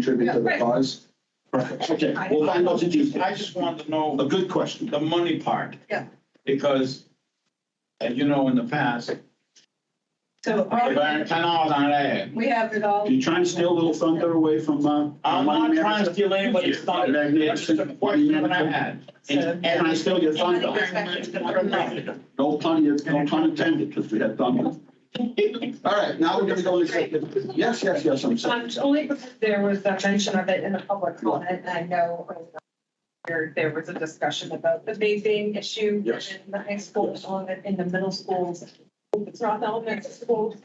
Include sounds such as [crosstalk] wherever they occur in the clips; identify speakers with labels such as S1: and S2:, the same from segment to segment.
S1: contribute to the cause?
S2: Okay, we'll find out the details. I just wanted to know
S3: A good question.
S2: the money part.
S4: Yeah.
S2: Because, as you know, in the past, if
S4: So
S2: I earn
S4: our-
S2: ten dollars on ad,
S4: we have it all.
S3: You trying to steal a little thunder away from, uh?
S2: I'm not trying to steal anybody's thunder. That's just a
S3: Magnificent.
S2: question that I had.
S3: And and I steal your thunder. No pun, no pun intended, because we had
S2: [laughs]
S3: thunder. All right, now we're gonna go into, yes, yes, yes, I'm
S5: Um,
S3: sorry.
S5: it's only because there was a mention of it in the public comment, and I know there, there was a discussion about the vaping issue
S3: Yes.
S5: in the high schools, on it, in the middle schools. It's not the elementary schools.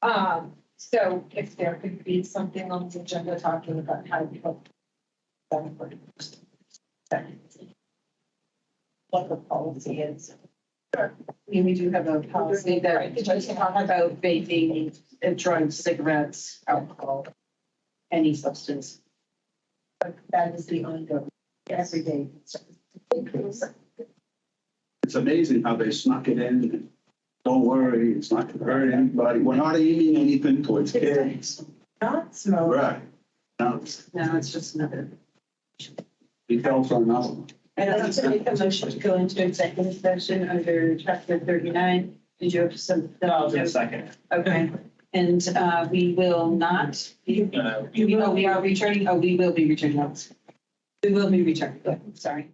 S5: Um, so if there could be something on the agenda talking about how we help. them for- What the policy is.
S6: I mean, we do have a policy that we just talk about vaping and drawing cigarettes, alcohol, any substance. But That is the ongoing, everyday.
S3: It's amazing how they snuck it in. Don't worry, it's not gonna hurt anybody. We're not aiming anything towards kids.
S6: Not smoke,
S3: Right. Now,
S6: no, it's just another.
S3: details are known.
S6: I'd like to make a motion to go into executive session under chapter thirty-nine. Did you have some?
S2: second.
S6: Okay, and uh, we will not, be-
S2: Uh,
S6: we, oh, we are returning, oh, we will be returning. We will be returning, sorry.